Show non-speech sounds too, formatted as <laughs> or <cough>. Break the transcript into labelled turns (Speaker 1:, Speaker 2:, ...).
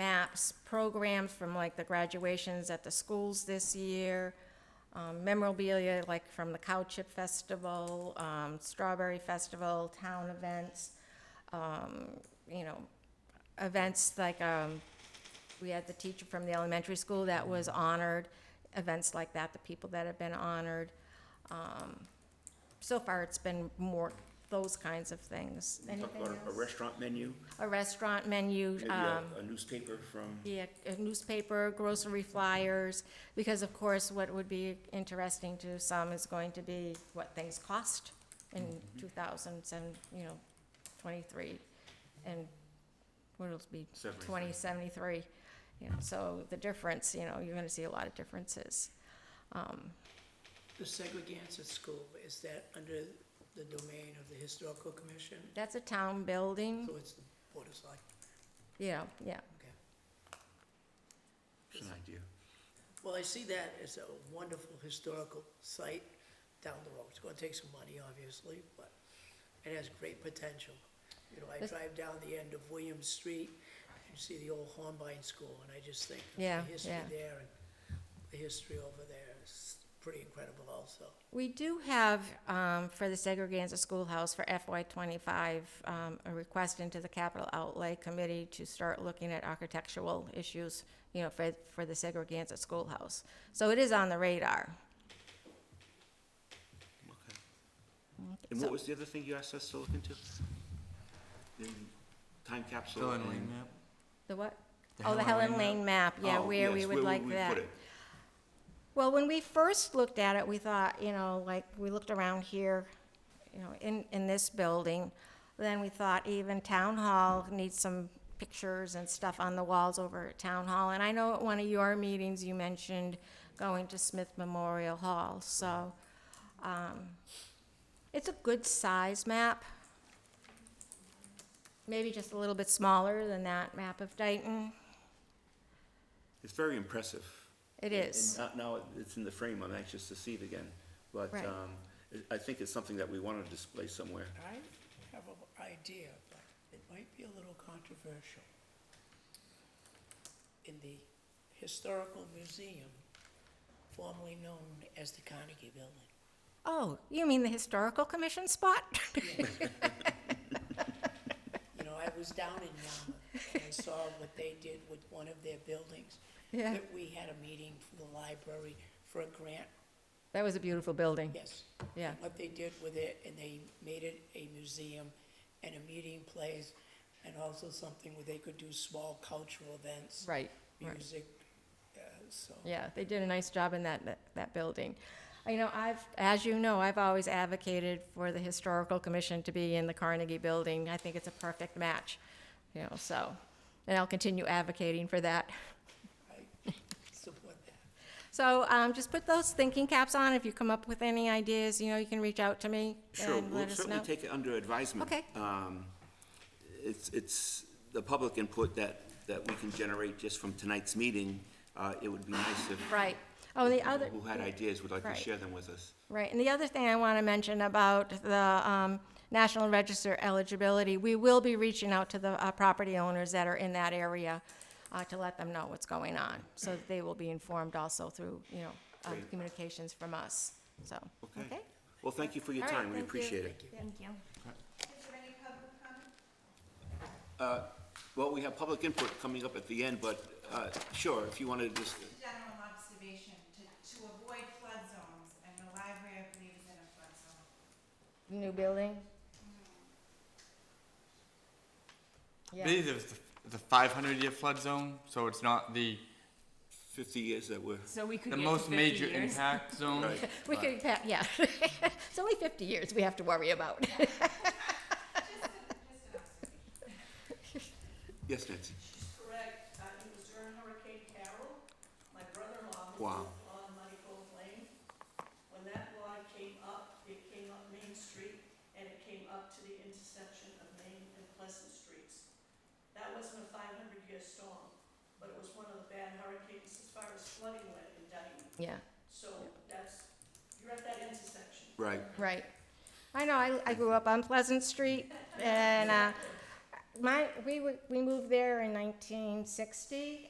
Speaker 1: maps, programs from like the graduations at the schools this year, um, memorabilia like from the Cow Chip Festival, um, Strawberry Festival, town events, um, you know, events like, um, we had the teacher from the elementary school that was honored, events like that, the people that have been honored. Um, So far, it's been more those kinds of things.
Speaker 2: Talk
Speaker 1: Anything
Speaker 2: about a- a
Speaker 1: else?
Speaker 2: restaurant menu,
Speaker 1: a restaurant menu,
Speaker 2: maybe uh, a
Speaker 1: um,
Speaker 2: a newspaper from,
Speaker 1: yeah, a newspaper, grocery flyers, because of course, what would be interesting to some is going to be what things cost in two thousand and, you know, twenty-three, and what it'll be,
Speaker 2: Seventy-three.
Speaker 1: twenty seventy-three. You know, so the difference, you know, you're gonna see a lot of differences.
Speaker 3: The segregance at school, is that under the domain of the historical commission?
Speaker 1: That's a town building,
Speaker 3: So it's the board of select,
Speaker 1: yeah, yeah,
Speaker 3: okay.
Speaker 2: just an idea.
Speaker 3: Well, I see that as a wonderful historical site down the road. It's gonna take some money, obviously, but it has great potential. You know, I
Speaker 1: This-
Speaker 3: drive down the end of Williams Street, you see the old Hornbein School, and I just think of
Speaker 1: Yeah,
Speaker 3: the history
Speaker 1: yeah.
Speaker 3: there and the history over there is pretty incredible also.
Speaker 1: We do have, um, for the Segregated Schoolhouse for FY twenty-five, um, a request into the capital outlay committee to start looking at architectural issues, you know, for, for the Segregated Schoolhouse. So it is on the radar.
Speaker 2: Okay. And what was the other thing you asked us to look into? The time capsule
Speaker 4: Fill-in lane
Speaker 2: and.
Speaker 4: map?
Speaker 1: The what?
Speaker 4: The
Speaker 1: Oh, the
Speaker 4: Helen
Speaker 1: Helen
Speaker 4: Lane
Speaker 1: Lane map, yeah,
Speaker 2: Oh,
Speaker 1: where we
Speaker 2: yes,
Speaker 1: would like
Speaker 2: we
Speaker 1: that.
Speaker 2: put it.
Speaker 1: Well, when we first looked at it, we thought, you know, like, we looked around here, you know, in, in this building. Then we thought even Town Hall needs some pictures and stuff on the walls over at Town Hall. And I know at one of your meetings, you mentioned going to Smith Memorial Hall, so, um, it's a good size map. Maybe just a little bit smaller than that map of Dayton.
Speaker 2: It's very impressive.
Speaker 1: It
Speaker 2: And-
Speaker 1: is.
Speaker 2: And now now it's in the frame, I'm anxious to see it again. But
Speaker 1: Right.
Speaker 2: um, I- I think it's something that we want to display somewhere.
Speaker 3: I have an idea, but it might be a little controversial. In the Historical Museum, formerly known as the Carnegie Building.
Speaker 1: Oh, you mean the Historical Commission spot? <laughs>
Speaker 3: You know, I was down in Yarmouth, and I saw what they did with one of their buildings.
Speaker 1: Yeah.
Speaker 3: That we had a meeting for the library for a grant,
Speaker 1: That was a beautiful building.
Speaker 3: yes.
Speaker 1: Yeah.
Speaker 3: What they did with it, and they made it a museum and a meeting place, and also something where they could do small cultural events.
Speaker 1: Right, right.
Speaker 3: music, uh, so.
Speaker 1: Yeah, they did a nice job in that, that, that building. You know, I've, as you know, I've always advocated for the Historical Commission to be in the Carnegie Building. I think it's a perfect match, you know, so, and I'll continue advocating for that. <laughs>
Speaker 3: I support that.
Speaker 1: So, um, just put those thinking caps on. If you come up with any ideas, you know, you can reach out to me
Speaker 2: Sure,
Speaker 1: and
Speaker 2: we'll
Speaker 1: let us know.
Speaker 2: certainly take it under advisement.
Speaker 1: Okay.
Speaker 2: Um, It's, it's the public input that, that we can generate just from tonight's meeting. Uh, It would be nice if.
Speaker 1: Right. Oh, the
Speaker 2: people
Speaker 1: other.
Speaker 2: Who had ideas would like to
Speaker 1: Right.
Speaker 2: share them with us.
Speaker 1: Right, and the other thing I want to mention about the um, National Register eligibility, we will be reaching out to the uh, property owners that are in that area uh, to let them know what's going on, so that they will be informed also through, you know, uh,
Speaker 2: Great.
Speaker 1: communications from us, so, okay?
Speaker 2: Well, thank you for your
Speaker 1: All right,
Speaker 2: time, we
Speaker 1: thank you.
Speaker 2: appreciate it.
Speaker 1: Thank you.
Speaker 2: Well, we have public input coming up at the end, but uh, sure, if you want to just,
Speaker 5: general observation, to, to avoid flood zones, and the library, I believe, is in a flood zone.
Speaker 1: New building?
Speaker 4: I
Speaker 1: Yeah,
Speaker 4: believe it was the, the 500 year flood zone, so it's not the,
Speaker 2: 50 years that we're,
Speaker 6: So we could
Speaker 4: the
Speaker 6: get to
Speaker 4: most
Speaker 6: 50
Speaker 4: major
Speaker 6: years.
Speaker 4: impact
Speaker 6: <laughs>
Speaker 4: zone.
Speaker 2: Right.
Speaker 1: we could, pa- yeah, <laughs> it's only 50 years we have to worry about. <laughs>
Speaker 2: yes, Nancy?
Speaker 7: She's correct. Uh, it was during Hurricane Carol. My brother-in-law
Speaker 2: Wow.
Speaker 7: was on Muddy Cove Lane. When that water came up, it came up Main Street and it came up to the intersection of Main and Pleasant Streets. That wasn't a five hundred year storm, but it was one of the bad hurricanes as far as flooding went in Dayton.
Speaker 1: Yeah.
Speaker 7: So that's, you're at that intersection.
Speaker 2: Right,
Speaker 1: Right. I know, I, I grew up on Pleasant Street, and, uh, my, we, were- we moved there in nineteen sixty,